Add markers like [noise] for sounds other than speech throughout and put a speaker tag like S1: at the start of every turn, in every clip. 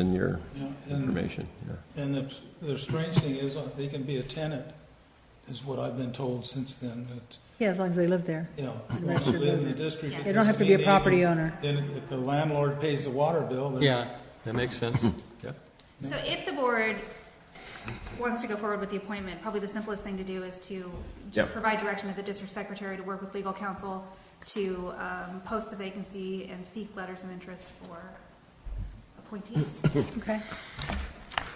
S1: in your
S2: Yeah, And,
S1: information. yeah.
S2: and the, the strange thing is, uh, they can be a tenant, is what I've been told since then, that,
S3: Yeah, as long as they live there.
S2: you know,
S3: And
S2: once you
S3: that's your
S2: live in the
S3: limit.
S2: district. it
S3: They don't have to be
S2: doesn't mean
S3: a
S2: they
S3: property
S2: can-
S3: owner.
S2: Then if the landlord pays the water bill, then.
S4: Yeah, that makes sense.
S5: So if the board wants to go forward with the appointment, probably the simplest thing to do is to just
S1: Yeah.
S5: provide direction to the district secretary to work with legal counsel to um, post the vacancy and seek letters of interest for appointees.
S3: Okay.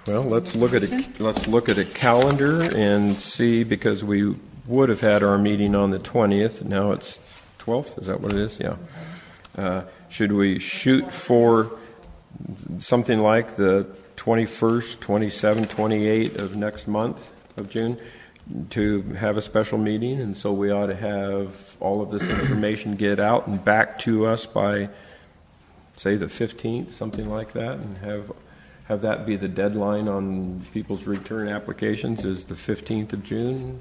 S1: Well, let's look at, a let's look at a calendar and see, because we would have had our meeting on the 20th, now it's 12th, is that what it is? Yeah. Uh, Should we shoot for something like the 21st, 27th, 28th of next month of June to have a special meeting? And so we ought to have all of this information get out and back to us by say the 15th, something like that, and have, have that be the deadline on people's return applications is the 15th of June.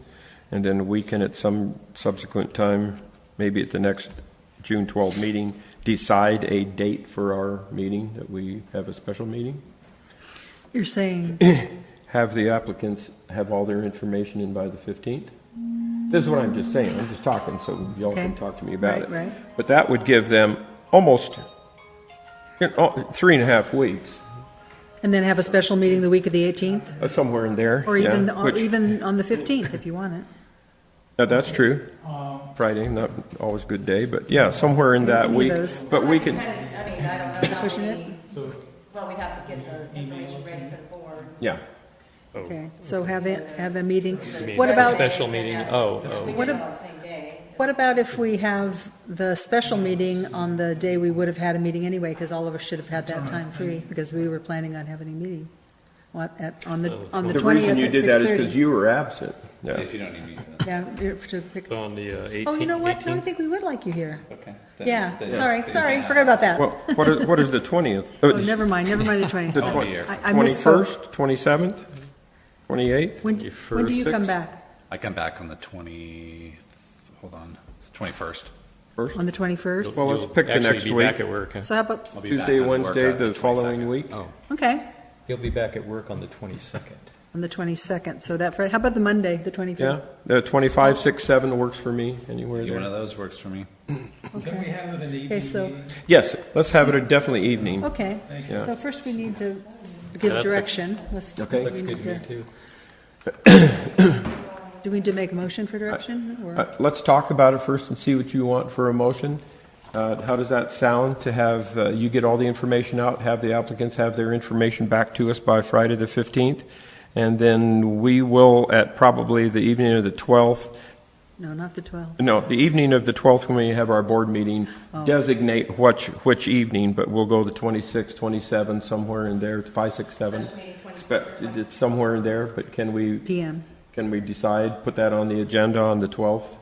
S1: And then we can at some subsequent time, maybe at the next June 12 meeting, decide a date for our meeting, that we have a special meeting.
S3: You're saying,
S1: Have the applicants have all their information in by the 15th? This is what I'm just saying, I'm just talking, so y'all can
S3: Okay.
S1: talk to me about
S3: Right,
S1: it.
S3: right.
S1: But that would give them almost, you know, three and a half weeks.
S3: and then have a special meeting the week of the 18th,
S1: Uh, Somewhere in there.
S3: or even,
S1: yeah,
S3: or
S1: which-
S3: even on the 15th, if you want it.
S1: uh, That's true.
S4: Um,
S1: Friday, not always a good day, but yeah, somewhere in that
S3: Any of
S1: week.
S3: those.
S1: But we can,
S6: Kind of, I mean, I don't know.
S3: Pushing it?
S6: Well, we have to get the information ready for the board.
S1: yeah. Oh.
S3: Okay, so have it, have a meeting. What about,
S4: [coughs] Special meeting, oh, oh.
S6: We
S3: What
S6: did it
S3: ab-
S6: on the same day.
S3: what about if we have the special meeting on the day we would have had a meeting anyway, because all of us should have had that time free, because we were planning on having a meeting. What, at, on the, on the
S1: The
S3: 20th
S1: reason you
S3: at
S1: did that is because
S3: 6:30.
S1: you were absent. Yeah.
S7: If you don't need me, then
S3: Yeah, you're- to pick,
S4: So on the uh, 18th.
S3: oh, you know what? No, I
S4: 18th?
S3: think we would like you here.
S7: that's okay. Then-
S3: Yeah,
S7: then-
S3: sorry,
S7: then-
S3: sorry, forgot about that.
S1: Well, what is, what is the 20th?
S3: Oh, never mind, never mind the 20th.
S7: I'll be here.
S3: I I
S1: 21st,
S3: misspoke.
S1: 27th, 28th?
S3: When, when do you come
S4: 21st.
S3: back?
S7: I come back on the 20, hold on, 21st.
S3: On the 21st?
S1: Well, let's
S4: You'll
S1: pick the
S4: actually
S1: next
S4: be
S1: week.
S4: back at work, huh?
S3: So how about,
S7: I'll be back
S1: Tuesday,
S7: on work
S1: Wednesday,
S7: on
S1: the
S7: 22nd.
S1: following week?
S4: Oh,
S3: okay,
S4: he'll be back at work on the 22nd.
S3: on the 22nd, so that, Fri- how about the Monday, the 25th?
S1: Yeah, Uh, the 25, 6, 7 works for me, anywhere
S7: Either one of
S1: there.
S7: those works for me.
S2: Can we have it in the evening?
S3: Okay, so-
S2: meeting?
S1: Yes, let's have it a definitely evening.
S3: Okay,
S1: you.
S3: so first we need to
S4: Yeah,
S3: give
S4: that's a-
S3: direction. Let's-
S1: Okay.
S3: we
S4: Looks good
S3: need
S4: to me,
S3: to-
S4: too.
S3: [coughs] Do we need to make a motion for direction?
S1: Uh,
S3: or-
S1: Let's talk about it first and see what you want for a motion. Uh, How does that sound to have, uh, you get all the information out, have the applicants have their information back to us by Friday, the 15th? And then we will, at probably the evening of the 12th,
S3: No, not the 12th.
S1: no, the evening of the 12th when we have our board meeting,
S3: Oh.
S1: designate which, which evening, but we'll go the 26th, 27th, somewhere in there, 5, 6, 7.
S6: Special meeting 26th or
S1: Spe- It's somewhere in there, but can we,
S3: PM.
S1: can we decide, put that on the agenda on the 12th?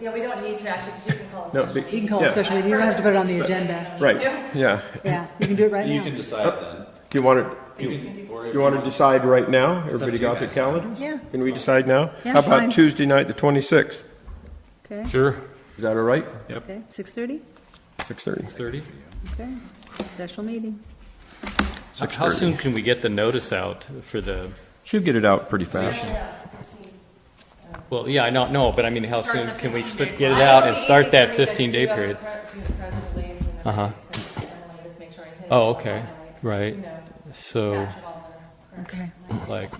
S6: Yeah, we don't need to actually, 'cause you can call a
S1: No,
S6: special
S1: but-
S6: meeting.
S3: You can call it
S1: Yeah.
S3: special meeting, you don't have to put it on the agenda.
S1: Right, yeah.
S3: Yeah, you can do it right
S7: You can
S3: now.
S1: Oh.
S7: decide then.
S1: Do you want to, you want to decide right now? Everybody got their calendars?
S3: Yeah.
S1: Can we decide now?
S3: Yeah,
S1: How
S3: fine.
S1: about Tuesday night, the 26th?
S3: Okay,
S4: Sure.
S1: Is that all right?
S3: okay, 6:30?
S1: 6:30?
S4: 6:30?
S3: Okay, special meeting.
S4: How- How soon can we get the notice out for the,
S1: Should get it out pretty fast.
S4: well, yeah, I don't know, but I mean, how
S6: Start
S4: soon
S6: the
S4: can we
S6: 15
S4: st-
S6: day
S4: get it out
S6: period. Well,
S4: and
S6: it'll be
S4: start
S6: easy
S4: that
S6: for me to
S4: 15-day
S6: do up
S4: period?
S6: the pre- do the press release and everything,
S4: Uh-huh.
S6: so Emily just make sure I hit it
S4: Oh,
S6: all
S4: okay.
S6: highlights,
S4: Right.
S6: you know,
S4: So,
S6: catch it all in the-
S3: Okay.
S4: like,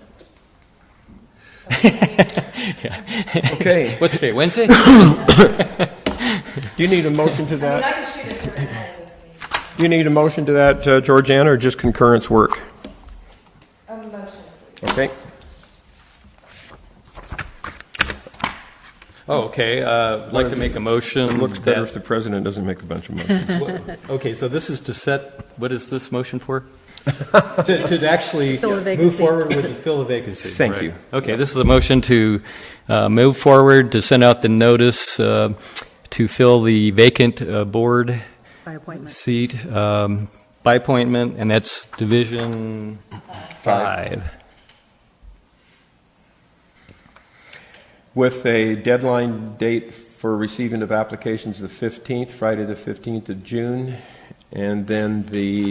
S1: Okay,
S4: [laughs] what's today,
S1: [laughs]
S4: Wednesday?
S1: do you need a motion to
S6: I mean,
S1: that?
S6: I can shoot it through the end of this meeting.
S1: Do you need a motion to that, uh, Georgiana, or just concurrence work?
S6: A motion, please.
S1: Okay,
S4: Oh, okay, uh, I'd like to make a motion
S1: it looks better
S4: that-
S1: if the president doesn't make a bunch of motions.
S4: Okay, so this is to set, what is this motion
S1: [laughs]
S4: for? To, to actually
S3: Fill a
S4: move
S3: vacancy.
S4: forward with the fill the vacancy.
S1: Thank
S4: right.
S1: you.
S4: Okay, this is a motion to uh, move forward, to send out the notice uh, to fill the vacant uh, board
S3: By appointment.
S4: seat um, by appointment, and that's Division Five.
S1: With a deadline date for receiving of applications, the 15th, Friday, the 15th of June, And then the